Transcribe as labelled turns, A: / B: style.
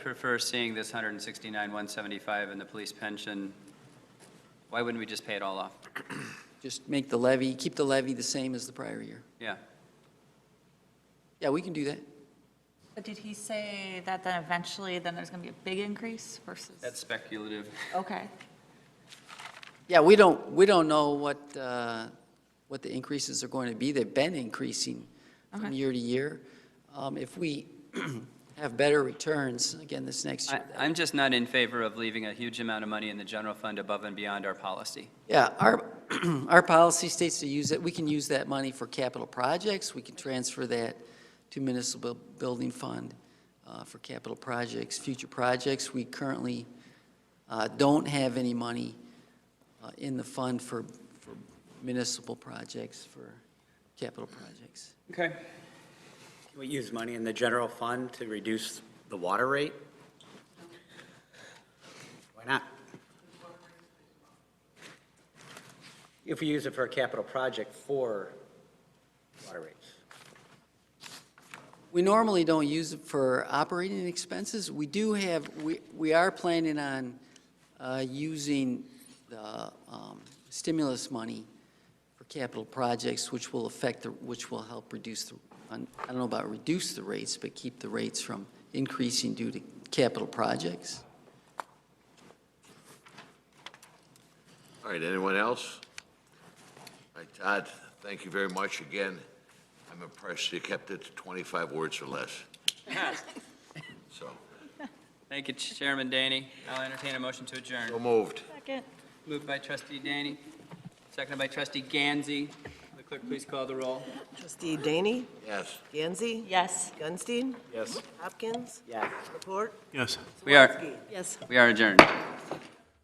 A: prefer seeing this 169, 175 and the police pension. Why wouldn't we just pay it all off?
B: Just make the levy, keep the levy the same as the prior year.
A: Yeah.
B: Yeah, we can do that.
C: But did he say that then eventually, then there's going to be a big increase versus?
A: That's speculative.
C: Okay,
B: Yeah, we don't, we don't know what, uh, what the increases are going to be. They've been increasing from
C: Okay.
B: year to year. Um, If we have better returns, again, this next
A: I,
B: year.
A: I'm just not in favor of leaving a huge amount of money in the general fund above and beyond our policy.
B: Yeah, our, our policy states to use it, we can use that money for capital projects. We can transfer that to municipal building fund uh, for capital projects, future projects. We currently uh, don't have any money uh, in the fund for for municipal projects, for capital projects.
A: Okay.
D: We use money in the general fund to reduce the water rate? Why not? If we use it for a capital project for water rates.
B: We normally don't use it for operating expenses. We do have, we, we are planning on uh, using the um, stimulus money for capital projects, which will affect, the which will help reduce the, I don't know about reduce the rates, but keep the rates from increasing due to capital projects.
E: All right, anyone else? All right, Todd, thank you very much again. I'm impressed you kept it to 25 words or less. So,
A: Thank you, Chairman Danny. I'll entertain a motion to adjourn.
E: so moved.
C: second.
A: Moved by trustee Danny, seconded by trustee Gansey. The clerk, please call the roll.
F: Trustee Daney,
E: Yes.
F: Gansey,
C: Yes.
F: Gunstein,
D: Yes.
F: Hopkins,
D: Yeah.
F: Laporte,
G: Yes.
A: We are,
F: Swansky. Yes.
A: we are adjourned.